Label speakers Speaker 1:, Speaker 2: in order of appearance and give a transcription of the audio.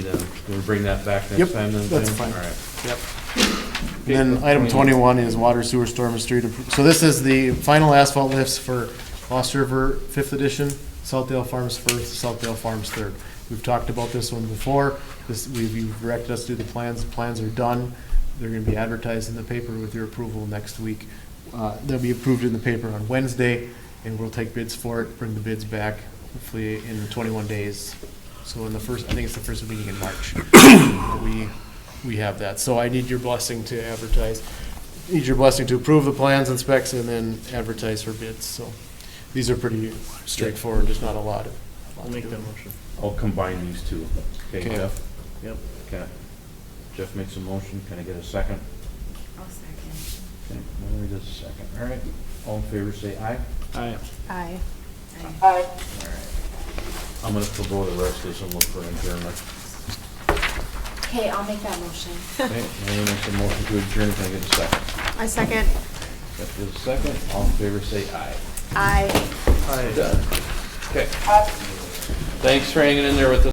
Speaker 1: Can we bring that back
Speaker 2: Yep,
Speaker 1: next time then?
Speaker 2: that's
Speaker 1: Tim?
Speaker 2: fine.
Speaker 1: All right.
Speaker 2: Yep.
Speaker 1: Okay,
Speaker 2: And then item
Speaker 1: 28.
Speaker 2: twenty-one is water sewer storm and street. impro- So this is the final asphalt lifts for Lost River Fifth Edition, Southdale Farms First, Southdale Farms Third. We've talked about this one before. This, we've you've directed us to do the plans. The plans are done. They're gonna be advertised in the paper with your approval next week. Uh, they'll be approved in the paper on Wednesday, and we'll take bids for it, bring the bids back, hopefully in twenty-one days. So in the first, I think it's the first meeting in March. that We, we have that. So I need your blessing to advertise, need your blessing to approve the plans and specs and then advertise for bids, so. These are pretty straightforward, there's not a lot. I'll make that motion.
Speaker 1: I'll combine these two. Okay,
Speaker 2: Okay.
Speaker 1: Jeff?
Speaker 2: Yep.
Speaker 1: Okay. Jeff makes a motion. Can I get a second?
Speaker 3: I'll second.
Speaker 1: Okay, Mallory does a second. All right. All in favor, say aye.
Speaker 2: Aye.
Speaker 3: Aye.
Speaker 1: I'm gonna forego the rest of this and look for adjournment.
Speaker 3: Okay, I'll make that motion.
Speaker 1: Okay, Mallory makes a motion to adjourn. Can I get a second?
Speaker 3: I second.
Speaker 1: Jeff does a second. All in favor, say aye.
Speaker 3: Aye.
Speaker 1: Done. Okay. Thanks for hanging in there with us.